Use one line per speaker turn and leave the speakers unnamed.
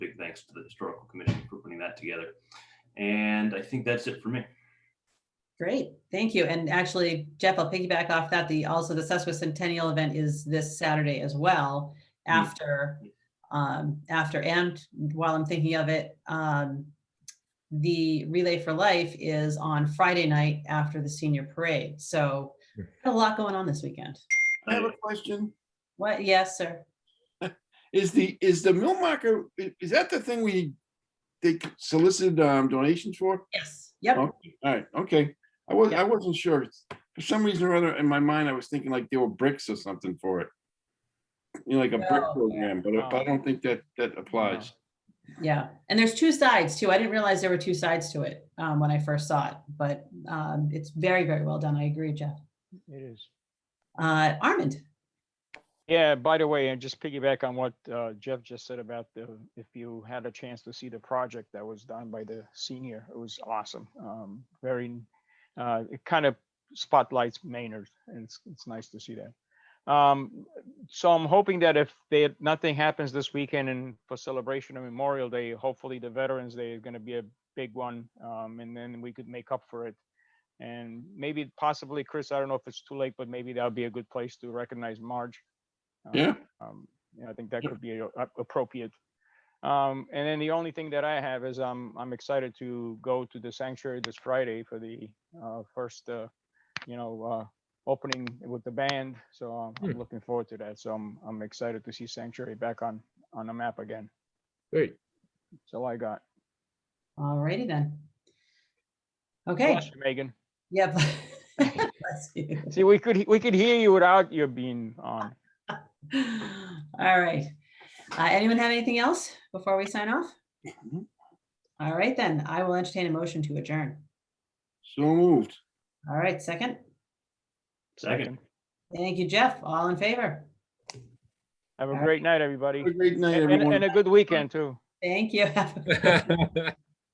thanks to the Historical Commission for putting that together. And I think that's it for me.
Great, thank you. And actually, Jeff, I'll piggyback off that. The, also the Susquehanna Centennial event is this Saturday as well
Mm.
after, um, after and while I'm thinking of it, um, the Relay for Life is on Friday night after the senior parade. So got a lot going on this weekend.
I have
I-
a question.
What? Yes, sir.
Is the, is the mill marker, i- is that the thing we, they solicited um, donations for?
Yes. Yep.
Oh. All right, okay. I was,
Yeah.
I wasn't sure. For some reason or other, in my mind, I was thinking like there were bricks or something for it. You know, like a brick
No.
program, but I- but I don't think that, that applies.
Yeah, and there's two sides too. I didn't realize there were two sides to it um, when I first saw it, but um, it's very, very well done. I agree, Jeff.
It is.
Uh, Armand,
Yeah, by the way, and just piggyback on what uh, Jeff just said about the, if you had a chance to see the project that was done by the senior, it was awesome. Um, Very, uh, it kind of spotlights Maynard and it's, it's nice to see that. Um, So I'm hoping that if they, nothing happens this weekend and for celebration of Memorial Day, hopefully the Veterans Day is going to be a big one. um, And then we could make up for it and maybe possibly, Chris, I don't know if it's too late, but maybe that would be a good place to recognize Marge. Um,
Yeah.
um, You know, I think that
Yeah.
could be a- a- appropriate. Um, And then the only thing that I have is I'm, I'm excited to go to the sanctuary this Friday for the uh, first, uh, you know, uh, opening with the band. So um,
Hmm.
I'm looking forward to that. So I'm, I'm excited to see sanctuary back on, on the map again.
Great.
That's all I got.
alrighty then. Okay,
Bless you, Megan.
yep. Bless you.
See, we could, he- we could hear you without you being on.
All right. Uh, anyone have anything else before we sign off?
Mhm.
All right, then I will entertain a motion to adjourn.
So moved.
All right, second.
Second.
Thank you, Jeff. All in favor?
Have a
Alright.
great night, everybody.
Have a great night,
And, and
everyone.
a good weekend too.
Thank you. Have a-
Bye,